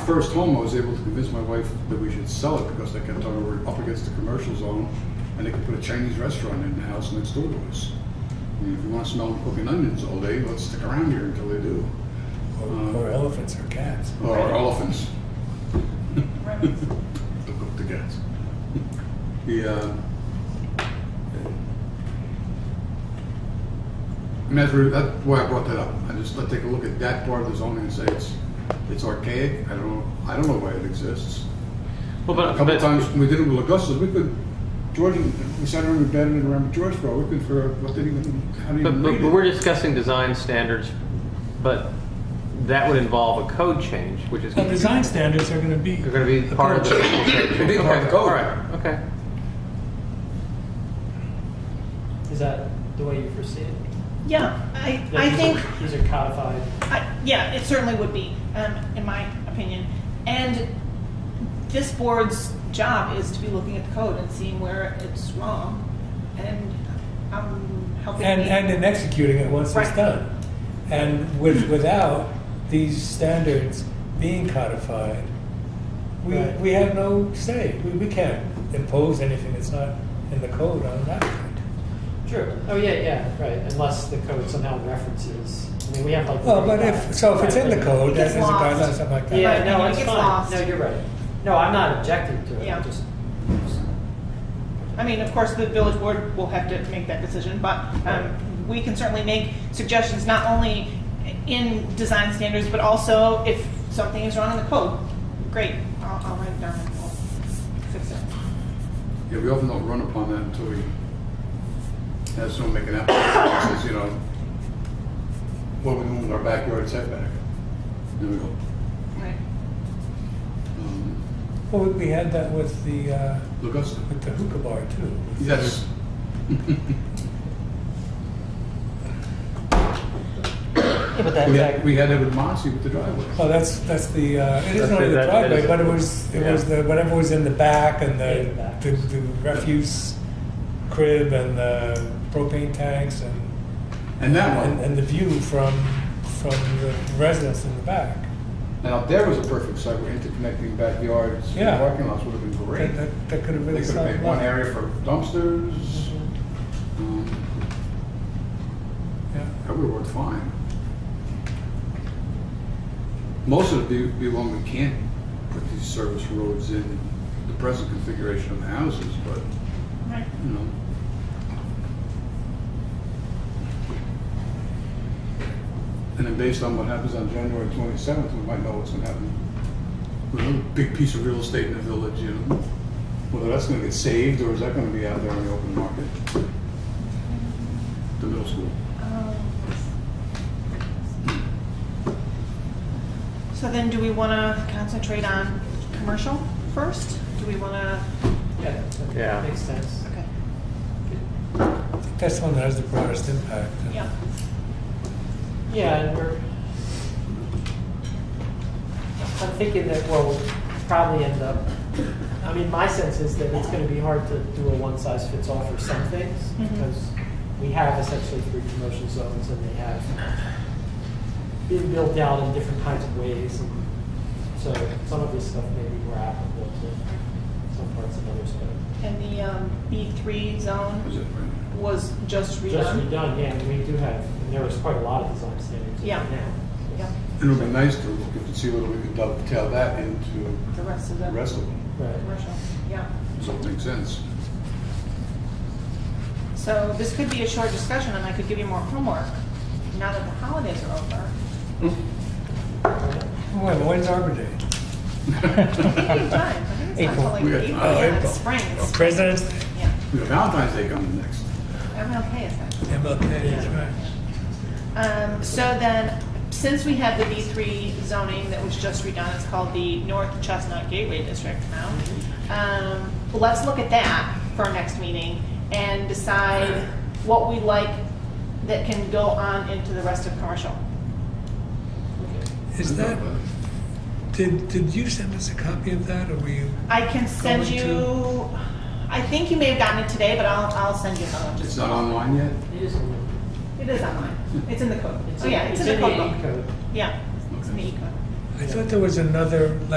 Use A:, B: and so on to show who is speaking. A: first home, I was able to convince my wife that we should sell it because they kept on, we were up against the commercial zone and they could put a Chinese restaurant in the house next door to us. I mean, if you want to smell them cooking onions all day, let's stick around here until they do.
B: Or or elephants or cats.
A: Or elephants.
C: Right.
A: Don't cook the cats. The, uh, and that's where, that's why I brought that up. I just, I take a look at that part of the zoning and say it's, it's archaic. I don't know, I don't know why it exists.
D: Well,
A: A
D: but,
A: couple
D: but
A: of times when we did it with Augustus, we could, George, we sat around and batted it around with George for, a while. we could figure out what did even, how did
D: But,
A: even read
D: but, but we're
A: it.
D: discussing design standards, but that would involve a code change, which is
B: Well,
D: going to
B: design standards are gonna be.
D: be, going to be part of the.
A: It'd be part of the code.
D: All right. Okay.
E: Is that the way you foresee it?
C: Yeah, I,
E: That
C: I
E: these
C: think,
E: are- These are codified.
C: I- yeah, it certainly would be, um, in my opinion. And this board's job is to be looking at the code and seeing where it's wrong. And I'm helping.
B: And,
C: me.
B: and in executing it once it's
C: Right.
B: done. And with, without these standards being codified, we,
E: Right.
B: we have no say. We, we can't impose anything that's not in the code on that.
E: True. Oh, yeah, yeah, right, unless the code somehow references, I mean, we have like.
B: Well, but if, so if it's in the code,
C: It's
B: that is a guideline,
C: lost.
B: something like that.
E: Yeah,
C: Right, and
E: no,
C: it
E: it's
C: gets
E: fine.
C: lost.
E: No, you're right. No, I'm not objecting to it.
C: Yeah.
E: I'm just.
C: I mean, of course, the village board will have to make that decision, but um, we can certainly make suggestions, not only in design standards, but also if something is wrong in the code. Great, I'll, I'll write it down and we'll fix it.
A: Yeah, we often don't run upon that until we have someone make an application that says, you know, what are we doing with our backyard setback? There we go.
C: Right.
A: Um,
B: Well, we- we had that with the, uh,
A: Look us,
B: with the hookah bar too.
A: yes.
E: Yeah, but
A: We had, we had it with Mossy with the driveway.
B: Well, Oh, that's, that's the, uh, it is
D: That's
B: not
D: the-
B: the
D: that- that
B: driveway,
D: is-
B: but it was, it was
D: yeah.
B: the, whatever was in the back and
E: Yeah,
B: the,
E: the back.
B: the the refuse crib and the propane tanks and,
A: And that
B: and,
A: one,
B: and the view from, from the residence in the back.
A: now there was a perfect site where interconnecting backyards, and
B: Yeah.
A: parking lots would have been great.
B: That, that- that could have
A: They
B: really
A: could have
B: solved
A: made
B: a
A: one
B: lot.
A: area for dumpsters.
E: Mhm.
A: Um,
B: Yeah.
A: That would work fine. Most of it be, be one we can't put these service roads in the present configuration of the houses, but,
C: Right.
A: you know. And then based on what happens on January twenty-seventh, we might know what's gonna happen. With a big piece of real estate in the village, you know, whether that's gonna get saved or is that gonna be out there on the open market? The middle school.
C: Um, So then, do we want to concentrate on commercial first? Do we want to?
E: Yeah, that-
D: Yeah.
E: that makes sense.
C: Okay.
B: That's the one that has the broadest impact.
C: Yeah.
E: Yeah, and we're, I'm thinking that we'll probably end up, I mean, my sense is that it's gonna be hard to do a one-size-fits-all for some things,
C: Mhm.
E: because we have essentially three commercial zones, and they have been built out in different kinds of ways, and so some of this stuff may be more applicable to some parts of others, but
C: And the um, B3
A: Is
C: zone
A: it right?
C: was just redone.
E: just redone, yeah, and we do have, and there was quite a lot of design standards in there
C: Yeah.
E: now.
C: Yeah.
A: It would be nice to look and see whether we could dovetail that into
C: The rest of the
A: the rest of them,
E: Right.
C: commercial. Yeah.
A: so it makes sense.
C: So this could be a short discussion, and I could give you more homework now that the holidays are over.
B: When, when's Arbor Day?
C: Anytime. I think it's not until
A: April.
C: like April,
A: Oh,
C: yeah,
B: April.
C: spring. It's-
B: President's
C: Yeah.
A: We got Valentine's Day coming next.
C: MLK is next.
B: MLK, that's right.
C: Um, so then, since we have the B three zoning that was just redone, it's called the North Chestnut Gateway District now. Um, let's look at that for our next meeting and decide what we like that can go on into the rest of commercial.
B: Is that, did, did you send us a copy of that or were you?
C: I can send
B: Going to-
C: you, I think you may have gotten it today, but I'll, I'll send you another one.
A: It's
C: just-
A: not online yet?
E: It is, a-
C: It is online. It's in the code.
E: it's
C: Oh,
E: in-
C: yeah, it's in
E: it's
C: the
E: in the
C: code book.
E: E code.
C: Yeah, it's in the E code.
B: I thought there was another,